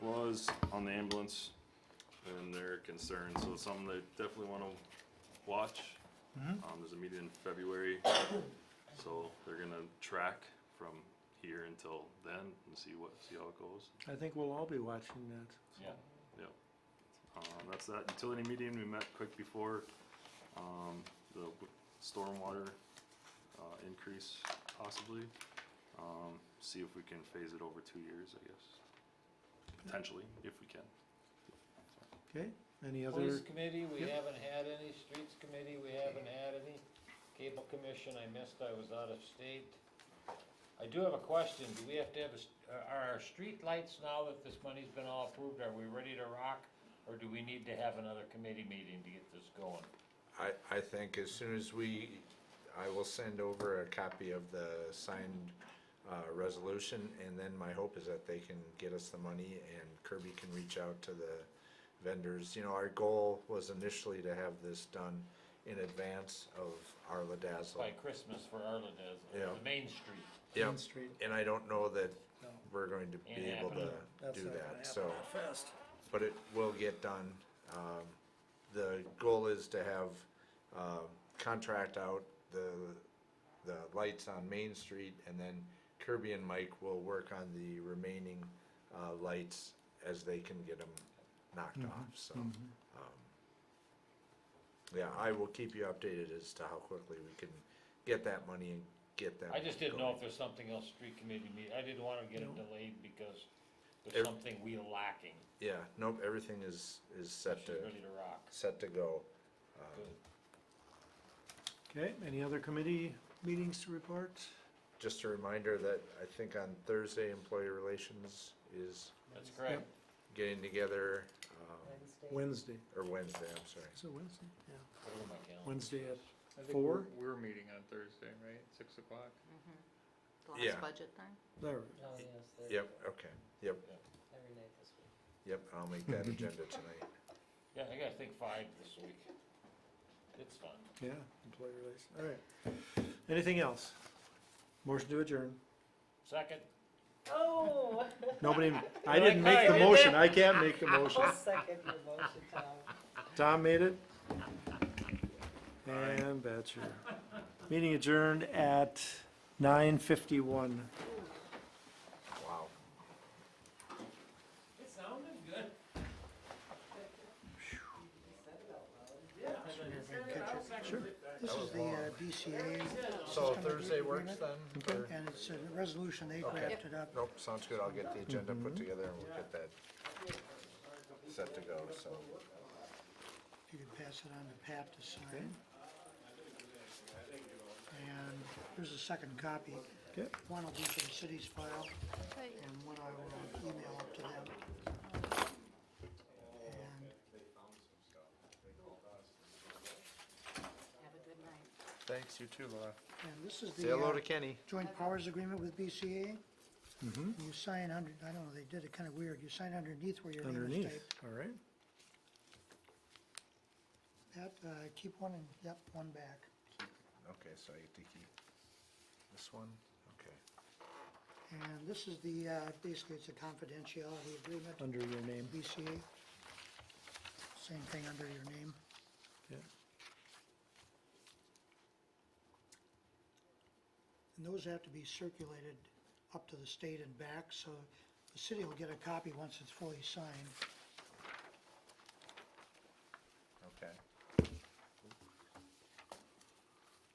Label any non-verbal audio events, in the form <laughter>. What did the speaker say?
the ambulance and their concerns, so it's something they definitely wanna watch. Mhm. Um, there's a meeting in February, so they're gonna track from here until then and see what, see how it goes. I think we'll all be watching that. Yeah. Um, that's that utility meeting, we met quick before, um, the w- stormwater, uh, increase possibly. Um, see if we can phase it over two years, I guess, potentially, if we can. Okay, any Police other, committee, we Yep. haven't had any, streets committee, we haven't had any, cable commission, I missed, I was out of state. I do have a question, do we have to have, a s- are- are our street lights now that this money's been all approved, are we ready to rock? Or do we need to have another committee meeting to get this going? I, I think as soon as we, I will send over a copy of the signed, uh, resolution, and then my hope is that they can get us the money and Kirby can reach out to the vendors. You know, our goal was initially to have this done in advance of Arla Dazzle. By Christmas for Arlen as, Yeah. the main street, Yep, Main Street? and I don't know that No, we're going to be Ain't able to happening. that's uh, do not gonna that, happen so. that Fast. but it will get done. Um, the goal is to have, um contract out the, the lights on Main Street and then Kirby and Mike will work on the remaining, uh, lights as they can get them knocked off, so. um, Yeah, I will keep you updated as to how quickly we can get that money and get that. I just didn't know going. if there's something else street committee meet, I didn't wanna get it No. delayed because Ev- there's something we lacking, Yeah, nope, everything is, is set she's to, ready to rock, set to go. Um, Good. Okay, any other committee meetings to report? Just a reminder that I think on Thursday, employee relations is that's correct. getting together, um, Wednesday. Wednesday, or Wednesday, I'm sorry. so Wednesday, yeah, Put it on my calendar. Wednesday at I think Four? We're, we're meeting on Thursday, right? Six o'clock. The Yeah. last budget thing? there. Oh, yes, Yep, okay, yep, every night this week. yep, I'll make that agenda tonight. Yeah, I gotta think five this week. It's fun. Yeah, employee relations, all right. Anything else? Motion to adjourn. Second, Oh! <laughs> Nobody, I didn't make the motion, I can't make the <laughs> motion. <laughs> I'll second your motion, Tom. Tom made it. And Batcher. Meeting adjourned at nine fifty-one. Wow. it sounded good. Sure. This is the uh, DCA, So Thursday works then? or- and it's a resolution they drafted up. Nope, sounds good, I'll get the agenda put together and we'll get that set to go, so. You can pass it on to Pat to sign. And here's a second copy. Okay. One will be for the city's file, and one I will uh, email up to them. And Have a good night. Thanks, you too, Laura. and this is Say the hello uh, to Kenny. joint powers agreement with BCA. Mm-hmm. You sign under, I don't know, they did it kind of weird. You sign underneath where your name is Underneath, typed. all right. Pat, uh, keep one and, yep, one back. Okay, so I get to keep this one, okay. And this is the, uh, basically it's a confidentiality agreement. Under your name, BCA. Same thing under your name. yeah. And those have to be circulated up to the state and back, so the city will get a copy once it's fully signed. Okay.